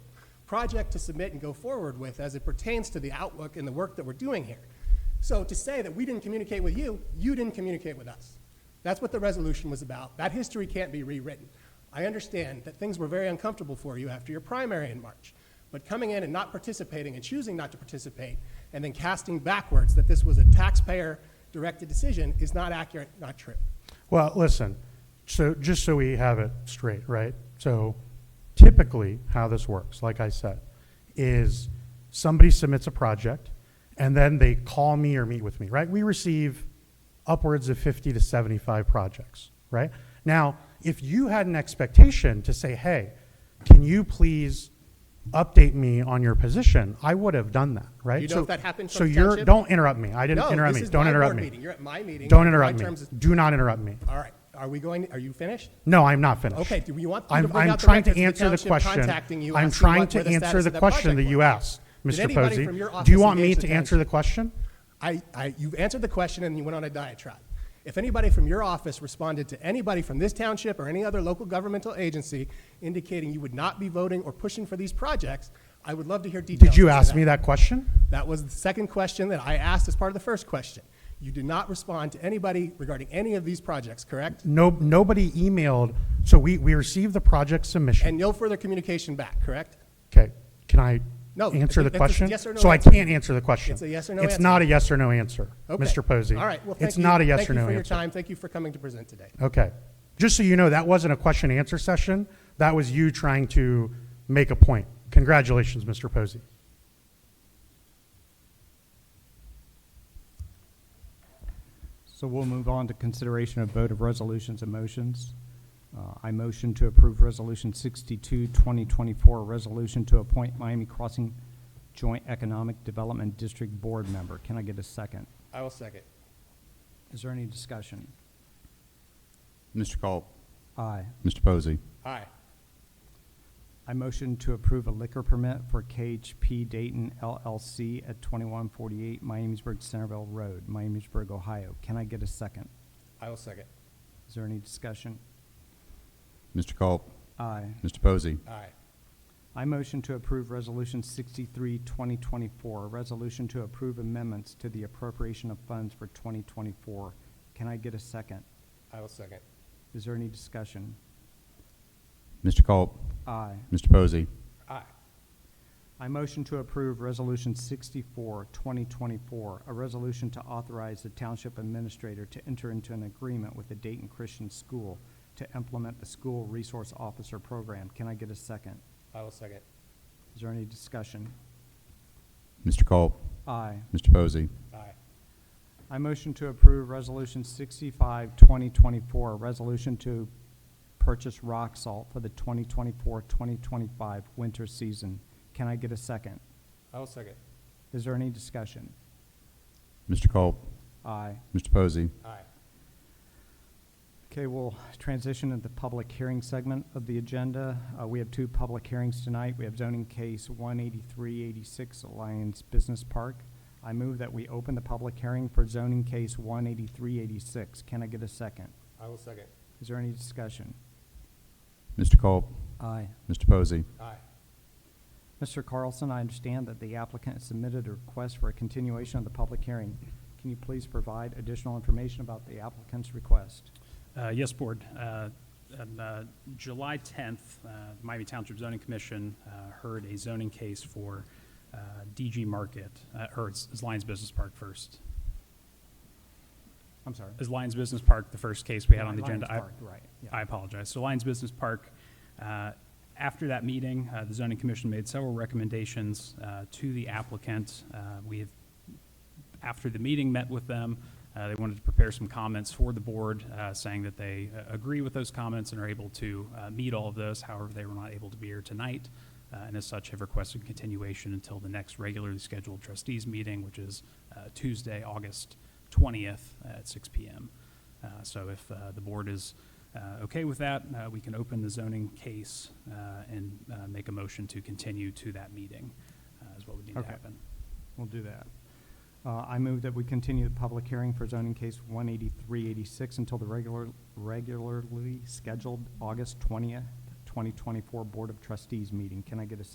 project to submit and go forward with as it pertains to the outlook and the work that we're doing here. So to say that we didn't communicate with you, you didn't communicate with us. That's what the resolution was about. That history can't be rewritten. I understand that things were very uncomfortable for you after your primary in March, but coming in and not participating and choosing not to participate and then casting backwards that this was a taxpayer-directed decision is not accurate, not true. Well, listen, so just so we have it straight, right? So typically, how this works, like I said, is somebody submits a project and then they call me or meet with me, right? We receive upwards of 50 to 75 projects, right? Now, if you had an expectation to say, hey, can you please update me on your position? I would have done that, right? You know So- if that happened from So you're, township? don't interrupt me. I didn't No, interrupt this me. is Don't my interrupt board me. meeting. You're at my meeting. Don't My interrupt me. terms is- Do not interrupt me. All right, are we going, are you finished? No, I'm not finished. Okay, do you want me to I'm, bring I'm out the trying records to of the answer the township question. contacting you, I'm asking trying what- where to the answer status the of that question that project you was? asked, Did Mr. anybody Posey. from your Do you office want me engage to the answer the question? I, I, you've answered the question and you went on a diatribe. If anybody from your office responded to anybody from this township or any other local governmental agency indicating you would not be voting or pushing for these projects, I would love to hear details. Did you as to ask me that question? That was the second question that I asked as part of the first question. You did not respond to anybody regarding any of these projects, correct? No, nobody emailed, so we, we received the project submission. And no further communication back, correct? Okay, can I No, it's answer a- the that's a question? yes or no So I answer. can't answer the question. It's a yes or no It's answer. not a yes or no answer, Okay. Mr. Posey. All right, well, thank you. It's not a yes or Thank no you for your answer. time. Thank you for coming to present today. Okay. Just so you know, that wasn't a question and answer session. That was you trying to make a point. Congratulations, Mr. Posey. So we'll move on to consideration of vote of resolutions and motions. Uh, I motion to approve Resolution 62, 2024, a resolution to appoint Miami Crossing Joint Economic Development District Board Member. Can I get a second? I will second. Is there any discussion? Mr. Culp. Aye. Mr. Posey. Aye. I motion to approve a liquor permit for KHP Dayton LLC at 2148 Miamisburg Centerville Road, Miamisburg, Ohio. Can I get a second? I will second. Is there any discussion? Mr. Culp. Aye. Mr. Posey. Aye. I motion to approve Resolution 63, 2024, a resolution to approve amendments to the appropriation of funds for 2024. Can I get a second? I will second. Is there any discussion? Mr. Culp. Aye. Mr. Posey. Aye. I motion to approve Resolution 64, 2024, a resolution to authorize the Township Administrator to enter into an agreement with the Dayton Christian School to implement the School Resource Officer Program. Can I get a second? I will second. Is there any discussion? Mr. Culp. Aye. Mr. Posey. Aye. I motion to approve Resolution 65, 2024, a resolution to purchase rock salt for the 2024-2025 winter season. Can I get a second? I will second. Is there any discussion? Mr. Culp. Aye. Mr. Posey. Aye. Okay, we'll transition to the public hearing segment of the agenda. Uh, We have two public hearings tonight. We have zoning case 18386 Alliance Business Park. I move that we open the public hearing for zoning case 18386. Can I get a second? I will second. Is there any discussion? Mr. Culp. Aye. Mr. Posey. Aye. Mr. Carlson, I understand that the applicant has submitted a request for a continuation of the public hearing. Can you please provide additional information about the applicant's request? Uh, Yes, Board. Uh, On uh, July 10th, uh, Miami Township Zoning Commission uh, heard a zoning case for uh, DG Market, uh, or it's it's Lions Business Park first. I'm sorry. Is Lions Business Park the first case we had on the Lions agenda? I- Park, right, yeah. I apologize. So Lions Business Park, uh, after that meeting, uh, the zoning commission made several recommendations uh, to the applicant. Uh, We have, after the meeting, met with them. Uh, They wanted to prepare some comments for the board, uh, saying that they uh, agree with those comments and are able to uh, meet all of those. However, they were not able to be here tonight, uh, and as such have requested continuation until the next regularly scheduled trustees meeting, which is uh, Tuesday, August 20th at 6 PM. Uh, So if uh, the board is uh, okay with that, uh, we can open the zoning case uh, and uh, make a motion to continue to that meeting, uh, is what would need to Okay. happen. We'll do that. Uh, I move that we continue the public hearing for zoning case 18386 until the regular, regularly scheduled August 20th, 2024 Board of Trustees meeting. Can I get a